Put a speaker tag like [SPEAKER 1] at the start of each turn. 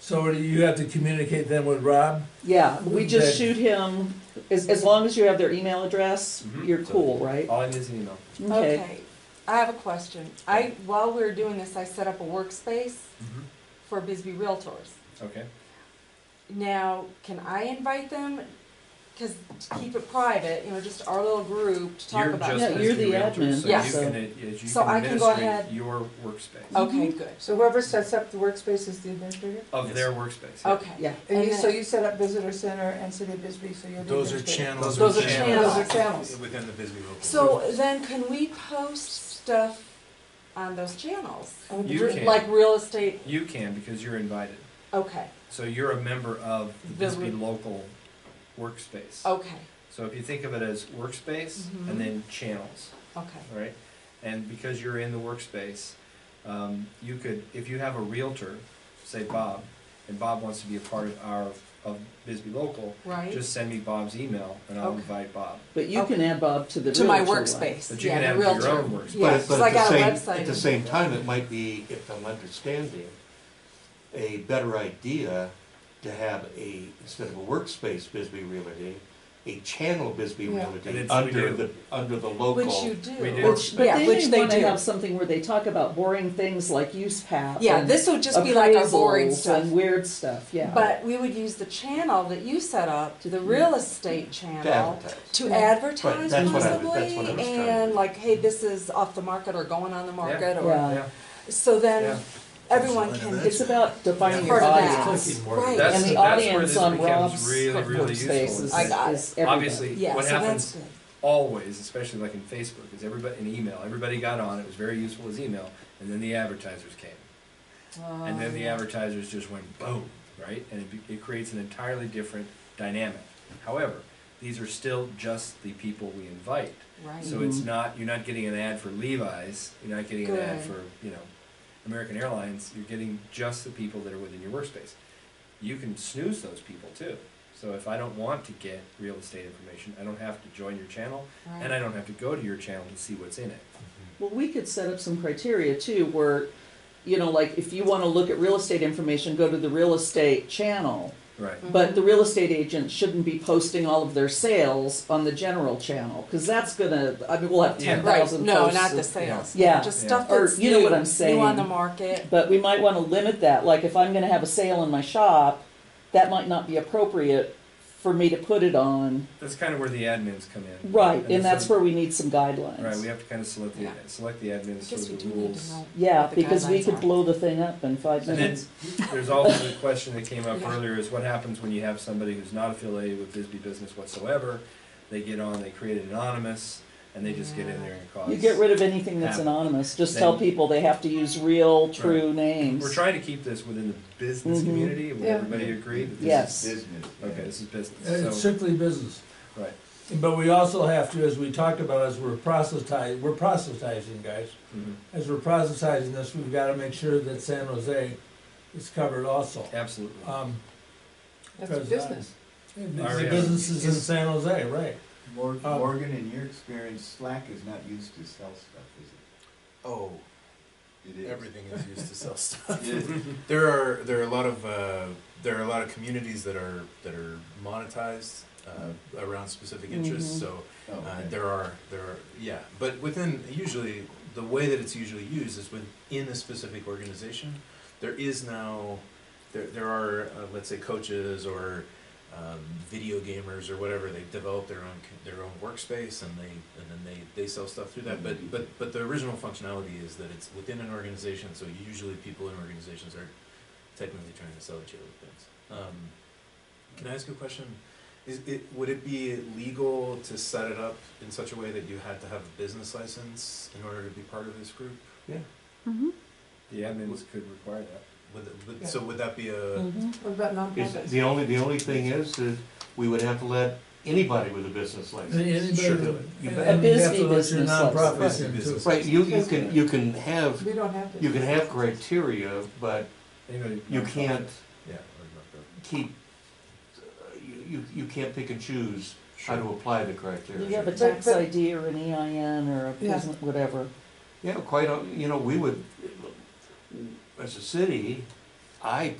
[SPEAKER 1] So you have to communicate then with Rob?
[SPEAKER 2] Yeah, we just
[SPEAKER 1] Then-
[SPEAKER 2] shoot him, as, as long as you have their email address,
[SPEAKER 3] Mhm.
[SPEAKER 2] you're cool, right?
[SPEAKER 3] All I need is an email.
[SPEAKER 2] Okay,
[SPEAKER 4] I have a question. I, while we were doing this, I set up a workspace
[SPEAKER 3] Mm-hmm.
[SPEAKER 4] for Bisbee Realtors.
[SPEAKER 3] Okay.
[SPEAKER 4] Now, can I invite them? Cause to keep it private, you know, just our little group to talk
[SPEAKER 3] You're
[SPEAKER 4] about.
[SPEAKER 3] just
[SPEAKER 2] Yeah,
[SPEAKER 3] as
[SPEAKER 2] you're
[SPEAKER 3] the
[SPEAKER 2] the
[SPEAKER 3] realtor,
[SPEAKER 2] admin,
[SPEAKER 3] so
[SPEAKER 4] Yeah.
[SPEAKER 3] you
[SPEAKER 2] so-
[SPEAKER 3] can, uh, yes, you
[SPEAKER 4] So
[SPEAKER 3] can
[SPEAKER 4] I can go
[SPEAKER 3] administrate
[SPEAKER 4] ahead.
[SPEAKER 3] your workspace,
[SPEAKER 4] Okay, good.
[SPEAKER 5] Mm-hmm. So whoever sets up the workspace is the administrator?
[SPEAKER 3] of
[SPEAKER 1] Yes.
[SPEAKER 3] their workspace. yeah.
[SPEAKER 4] Okay.
[SPEAKER 2] yeah.
[SPEAKER 5] And you,
[SPEAKER 4] And
[SPEAKER 5] so
[SPEAKER 4] then-
[SPEAKER 5] you set up visitor center and city of Bisbee, so you're the
[SPEAKER 6] Those are
[SPEAKER 5] administrator?
[SPEAKER 6] channels.
[SPEAKER 4] Those are channels.
[SPEAKER 5] Those are channels.
[SPEAKER 6] Within the Bisbee local.
[SPEAKER 4] So then can we post stuff on those channels?
[SPEAKER 5] Oh,
[SPEAKER 3] You
[SPEAKER 4] Re-
[SPEAKER 3] can.
[SPEAKER 4] Like real estate,
[SPEAKER 3] You can, because you're invited.
[SPEAKER 4] okay,
[SPEAKER 3] So you're a member of the
[SPEAKER 4] The
[SPEAKER 3] Bisbee
[SPEAKER 4] re- Oh.
[SPEAKER 3] local workspace.
[SPEAKER 4] okay,
[SPEAKER 3] So if you think of it as workspace
[SPEAKER 4] Mhm.
[SPEAKER 3] and then channels,
[SPEAKER 4] okay,
[SPEAKER 3] right? And because you're in the workspace, um, you could, if you have a realtor, say Bob, and Bob wants to be a part of our, of Bisbee local,
[SPEAKER 4] right?
[SPEAKER 3] just send me Bob's email and I'll
[SPEAKER 4] Okay.
[SPEAKER 3] invite Bob.
[SPEAKER 2] But you can add Bob to the
[SPEAKER 4] To my
[SPEAKER 2] realtor one.
[SPEAKER 4] workspace,
[SPEAKER 3] But you
[SPEAKER 4] yeah,
[SPEAKER 3] can
[SPEAKER 4] the
[SPEAKER 3] have
[SPEAKER 4] realtor.
[SPEAKER 3] your own workspace.
[SPEAKER 4] Yeah,
[SPEAKER 7] But,
[SPEAKER 4] 'cause
[SPEAKER 7] but
[SPEAKER 4] I
[SPEAKER 7] at the
[SPEAKER 4] got a
[SPEAKER 7] same,
[SPEAKER 4] website.
[SPEAKER 7] at the same time, it might be, if I'm understanding, a better idea to have a, instead of a workspace Bisbee Realty, a channel Bisbee
[SPEAKER 5] Yeah.
[SPEAKER 3] And
[SPEAKER 7] Realty
[SPEAKER 3] it's- we
[SPEAKER 7] under
[SPEAKER 3] do.
[SPEAKER 7] the, under the
[SPEAKER 4] Which you
[SPEAKER 7] local.
[SPEAKER 4] do.
[SPEAKER 3] We do.
[SPEAKER 2] Which, but
[SPEAKER 4] Yeah,
[SPEAKER 2] then
[SPEAKER 4] which
[SPEAKER 2] you
[SPEAKER 4] they
[SPEAKER 2] wanna
[SPEAKER 4] do.
[SPEAKER 2] have something where they talk about boring things like use path.
[SPEAKER 4] Yeah,
[SPEAKER 2] and
[SPEAKER 4] this would just be like our boring
[SPEAKER 2] appraisals
[SPEAKER 4] stuff.
[SPEAKER 2] And weird stuff, yeah. Mm-hmm.
[SPEAKER 4] But we would use the channel that you set up, the real estate
[SPEAKER 7] To
[SPEAKER 4] channel,
[SPEAKER 7] advertise.
[SPEAKER 4] to
[SPEAKER 5] Yeah.
[SPEAKER 4] advertise
[SPEAKER 7] Right, that's what I- that's
[SPEAKER 4] possibly,
[SPEAKER 7] what I was trying to
[SPEAKER 4] and
[SPEAKER 7] do.
[SPEAKER 4] like, hey, this is off the market or going on the market,
[SPEAKER 3] Yeah.
[SPEAKER 4] or,
[SPEAKER 2] Yeah.
[SPEAKER 3] Yeah.
[SPEAKER 4] so then everyone
[SPEAKER 6] Something
[SPEAKER 4] can get
[SPEAKER 6] like that.
[SPEAKER 2] It's about defining
[SPEAKER 4] part
[SPEAKER 2] your
[SPEAKER 4] of
[SPEAKER 2] audience.
[SPEAKER 4] that.
[SPEAKER 6] more.
[SPEAKER 4] Right.
[SPEAKER 3] That's-
[SPEAKER 2] And the
[SPEAKER 3] that's where
[SPEAKER 2] audience
[SPEAKER 3] this
[SPEAKER 2] on
[SPEAKER 3] becomes
[SPEAKER 2] Rob's
[SPEAKER 3] really, really useful.
[SPEAKER 2] workspace is,
[SPEAKER 4] I got it.
[SPEAKER 2] is everybody.
[SPEAKER 3] Obviously,
[SPEAKER 4] Yeah,
[SPEAKER 3] what
[SPEAKER 4] so
[SPEAKER 3] happens
[SPEAKER 4] that's good.
[SPEAKER 3] always, especially like in Facebook, is everybody in email. Everybody got on. It was very useful as email, and then the advertisers came, and then the
[SPEAKER 4] Um,
[SPEAKER 3] advertisers just went boom, right? And it, be- it creates an entirely different dynamic. However, these are still just the people we invite,
[SPEAKER 4] Right.
[SPEAKER 3] so it's not you're not getting an ad for Levi's, you're not getting an ad
[SPEAKER 4] Good.
[SPEAKER 3] for you know American Airlines. You're getting just the people that are within your workspace. You can snooze those people too. So if I don't want to get real estate information, I don't have to join your channel. And I
[SPEAKER 4] Right.
[SPEAKER 3] don't have to go to your channel to see what's in it.
[SPEAKER 2] Well, we could set up some criteria too, where, you know, like if you wanna look at real estate information, go to the real estate channel.
[SPEAKER 3] Right.
[SPEAKER 4] Mm-hmm.
[SPEAKER 2] But the real estate agent shouldn't be posting all of their sales on the general channel, cause that's gonna, I mean, we'll have
[SPEAKER 3] Yeah.
[SPEAKER 2] ten
[SPEAKER 4] Right,
[SPEAKER 2] thousand posts.
[SPEAKER 4] no, not the
[SPEAKER 2] of-
[SPEAKER 4] sales.
[SPEAKER 2] Yeah.
[SPEAKER 4] Just
[SPEAKER 3] Yeah.
[SPEAKER 4] stuff
[SPEAKER 2] Or,
[SPEAKER 4] that's
[SPEAKER 2] you know what
[SPEAKER 4] new-
[SPEAKER 2] I'm
[SPEAKER 4] New
[SPEAKER 2] saying.
[SPEAKER 4] on the market.
[SPEAKER 2] But we might wanna limit that, like if I'm gonna have a sale in my shop, that might not be appropriate for me to put it on.
[SPEAKER 3] That's kind of where the admins come in.
[SPEAKER 2] Right, and that's
[SPEAKER 3] the-
[SPEAKER 2] where we need some guidelines.
[SPEAKER 3] Right, we have to kind of select the,
[SPEAKER 4] Yeah.
[SPEAKER 3] select the admins,
[SPEAKER 4] I guess
[SPEAKER 3] sort
[SPEAKER 4] we
[SPEAKER 3] of
[SPEAKER 4] do
[SPEAKER 3] the
[SPEAKER 4] need to
[SPEAKER 3] rules.
[SPEAKER 4] know.
[SPEAKER 2] Yeah,
[SPEAKER 4] what the
[SPEAKER 2] because we
[SPEAKER 4] guidelines
[SPEAKER 2] could
[SPEAKER 4] are.
[SPEAKER 2] blow the thing up in five
[SPEAKER 3] And then
[SPEAKER 2] minutes.
[SPEAKER 3] there's also the question that came up
[SPEAKER 4] Yeah.
[SPEAKER 3] earlier is what happens when you have somebody who's not affiliated with Bisbee Business whatsoever? They get on, they create an anonymous, and they just get in there and cause.
[SPEAKER 2] You get rid of anything that's
[SPEAKER 3] Yeah.
[SPEAKER 2] anonymous, just tell
[SPEAKER 3] Then-
[SPEAKER 2] people they have to use real, true names.
[SPEAKER 3] We're trying to keep this within the business
[SPEAKER 2] Mhm.
[SPEAKER 3] community. Would
[SPEAKER 5] Yeah.
[SPEAKER 3] everybody agree that this
[SPEAKER 2] Yes.
[SPEAKER 3] is? Okay, this is
[SPEAKER 1] It's
[SPEAKER 3] business, so,
[SPEAKER 1] strictly business.
[SPEAKER 3] right.
[SPEAKER 1] But we also have to, as we talked about, as we're proselytizing, we're proselytizing, guys.
[SPEAKER 3] Mhm.
[SPEAKER 1] As we're proselytizing this, we've gotta make sure that San Jose is covered also.
[SPEAKER 3] Absolutely.
[SPEAKER 1] Um,
[SPEAKER 5] That's a business.
[SPEAKER 1] the
[SPEAKER 3] Already.
[SPEAKER 1] businesses in San Jose, right.
[SPEAKER 8] Mor-
[SPEAKER 1] Um,
[SPEAKER 8] Morgan, in your experience, Slack is not used to sell stuff, is
[SPEAKER 6] Oh,
[SPEAKER 8] it? It is.
[SPEAKER 6] everything is used to sell stuff.
[SPEAKER 8] It is.
[SPEAKER 6] There are, there are a lot of, uh, there are a lot of communities that are, that are monetized, uh, around specific interests,
[SPEAKER 2] Mhm.
[SPEAKER 6] so,
[SPEAKER 8] Oh,
[SPEAKER 6] Uh,
[SPEAKER 8] okay.
[SPEAKER 6] there are, there are, yeah, but within, usually, the way that it's usually used is within a specific organization. There is now, there, there are, uh, let's say, coaches or um, video gamers or whatever. They develop their own c- their own workspace and they and then they, they sell stuff through that. But but but the original functionality is that it's within an organization. So usually, people in organizations are technically trying to sell each other things. Um, can I ask you a question? Is it, would it be legal to set it up in such a way that you had to have a business license in order to be part of this group?
[SPEAKER 3] The admins could require that.
[SPEAKER 6] Would, it- would, So would that be a
[SPEAKER 2] Mhm.
[SPEAKER 5] What about
[SPEAKER 7] Is,
[SPEAKER 5] nonprofits?
[SPEAKER 7] the only, the only thing is, that we would have to let anybody with a business license.
[SPEAKER 6] Sure.
[SPEAKER 1] Anybody,
[SPEAKER 7] You
[SPEAKER 1] and
[SPEAKER 7] bet.
[SPEAKER 1] you have to let
[SPEAKER 2] business
[SPEAKER 1] your
[SPEAKER 2] license.
[SPEAKER 1] nonprofits in too.
[SPEAKER 6] business?
[SPEAKER 7] Right, you, you can, you can have,
[SPEAKER 5] We don't have to.
[SPEAKER 7] you can have criteria, but
[SPEAKER 3] Anybody-
[SPEAKER 7] you can't
[SPEAKER 6] Yeah. or
[SPEAKER 7] keep, you, you, you can't pick and choose how to apply the criteria.
[SPEAKER 2] You have a
[SPEAKER 5] But-
[SPEAKER 2] tax
[SPEAKER 5] but-
[SPEAKER 2] ID or an EIN or a
[SPEAKER 5] Yeah.
[SPEAKER 2] business, whatever.
[SPEAKER 7] Yeah, quite, uh, you know, we would, as a city, I